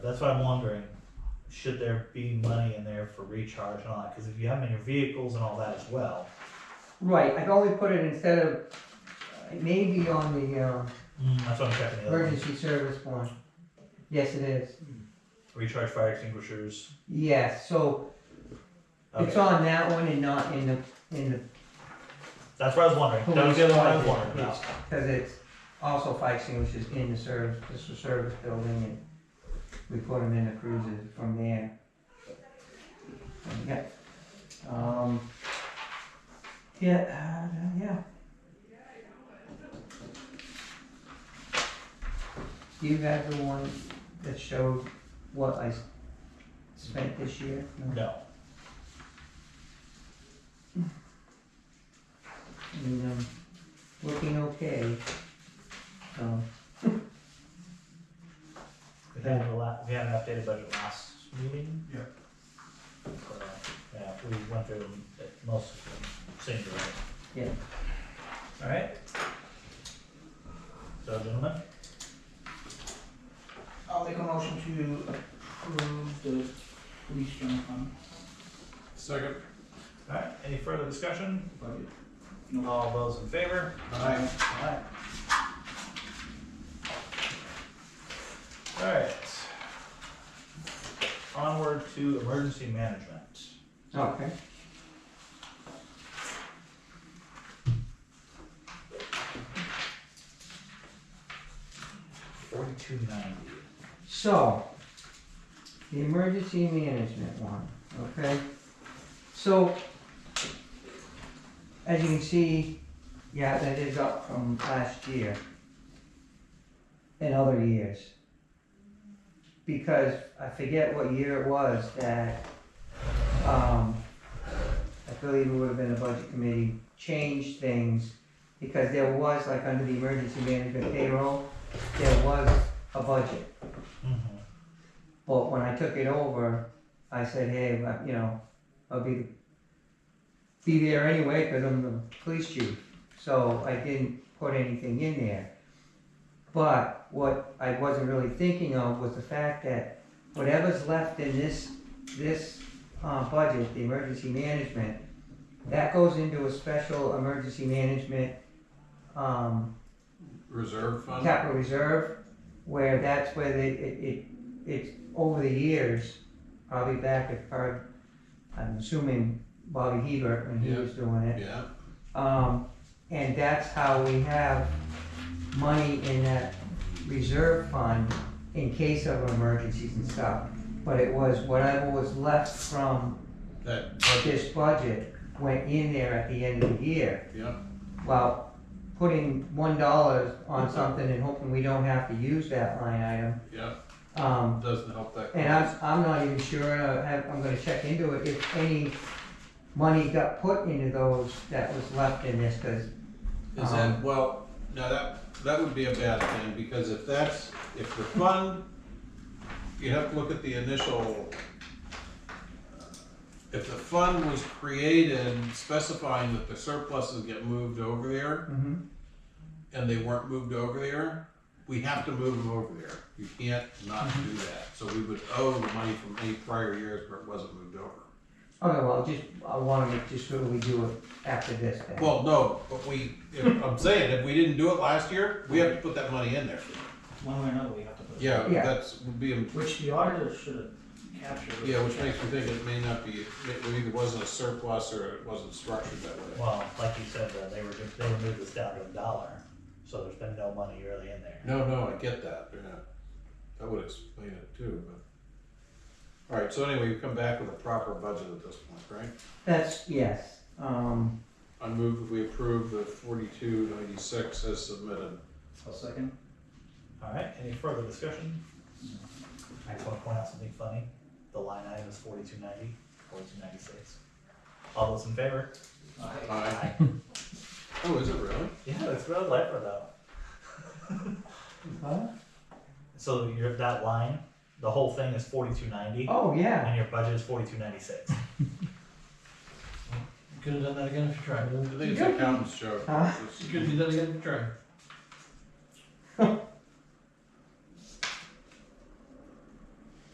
That's why I'm wondering, should there be money in there for recharge and all that? Because if you have them in your vehicles and all that as well. Right, I've only put it instead of, it may be on the, uh, Mm, that's what I'm checking the other one. emergency service one. Yes, it is. Recharge fire extinguishers. Yes, so it's Okay, on that one and not in the, in the, that's what I was Oh, wondering. That was the other one I was Police wondering about. cause it's also fire extinguishers in the service, it's a service building and we put them in the cruises from there. Yeah, um, yeah, uh, yeah. You have the one that showed what I s- spent this year? No? No, and um, looking okay. So, we had a la we had an updated budget last meeting. Yeah. So, Yeah, we went through them, uh, most of them, singularly. Yeah. Alright. So gentlemen, I'll make a motion to approve the police general fund Second. alright, any further discussion? budget. All those in favor? Aye. Alright. Alright. Onward to emergency management. okay. Forty-two ninety. So, the emergency management one, okay? So, as you can see, yeah, that is up from last year and other years. Because I forget what year it was that, um, I believe it would have been the budget committee changed things because there was, like, under the emergency management payroll, there was a budget. Mm-hmm. But when I took it over, I said, hey, I- you know, I'll be, be there anyway, cause I'm the police chief. So I didn't put anything in there. But what I wasn't really thinking of was the fact that whatever's left in this, this, uh, budget, the emergency management, that goes into a special emergency management, um, Reserve fund? capital reserve, where that's where they, it, it, it's over the years, probably back at, part- I'm assuming Bobby Hebert when he Yeah. was doing it. Yeah, Um, and that's how we have money in that reserve fund in case of emergencies and stuff. But it was whatever was left from that budget, this budget went in there at the end of the year. yeah, Well, putting one dollar on something and hoping we don't have to use that line item. yeah, Um, doesn't help that. and I'm, I'm not even sure, I have, I'm gonna check into it, if any money got put into those that was left in this, cause, Is that, well, now that, that would be a bad thing, because if that's, if the fund, you have to look at the initial, uh, if the fund was created specifying that the surpluses get moved over there, mhm, and they weren't moved over there, we have to move them over there. You can't not do that, so we would owe the money from any prior years where it wasn't moved over. okay, well, just, I wanna make just sure we do it after this then. Well, no, but we, if, I'm saying, if we didn't do it last year, we have to put that money in there. One way or another, we have to put it. Yeah, Yeah. that's, would be, Which the auditor should have captured. yeah, which makes me think it may not be, it either wasn't a surplus or it wasn't structured that way. Well, like you said, uh, they were, just- they removed this down to a dollar, so there's been no money really in there. No, no, I get that, yeah. That would explain it too, but. All right, so anyway, you come back with a proper budget at this point, right? That's, yes, um, I move that we approve the forty-two ninety-six as submitted. A second. Alright, any further discussion? I just wanna point out something funny, the line item is forty-two ninety, forty-two ninety-six. All those in favor? Aye. Aye. Oh, is it really? Yeah, that's real leper though. What? So you're that line, the whole thing is forty-two ninety, oh, yeah, and your budget is forty-two ninety-six. Could have done that again if you tried. I think it's accountant's joke. Huh? You could have done that again if you tried.